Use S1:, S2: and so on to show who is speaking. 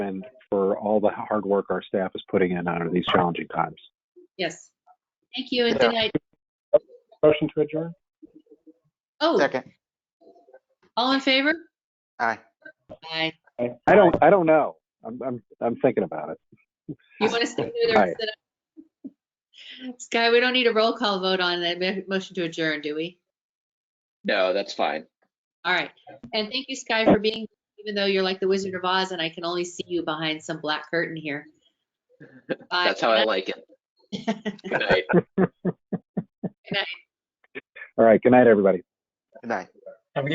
S1: for all the hard work our staff is putting in under these challenging times.
S2: Yes. Thank you and good
S3: Yeah.
S2: night.
S4: Motion to adjourn?
S2: Oh,
S3: Second.
S2: all in favor?
S3: Aye.
S2: Aye.
S4: Aye.
S1: I don't, I don't know. I'm, I'm, I'm thinking about it.
S2: You want to stay there? or
S1: Aye.
S2: sit up? Sky, we don't need a roll call vote on that mo- motion to adjourn, do we?
S5: No, that's fine.
S2: All right. And thank you, Sky, for being, even though you're like the Wizard of Oz and I can only see you behind some black curtain here. Bye.
S5: That's how I like it. Good night.
S1: All right. Good night, everybody.
S3: Good night.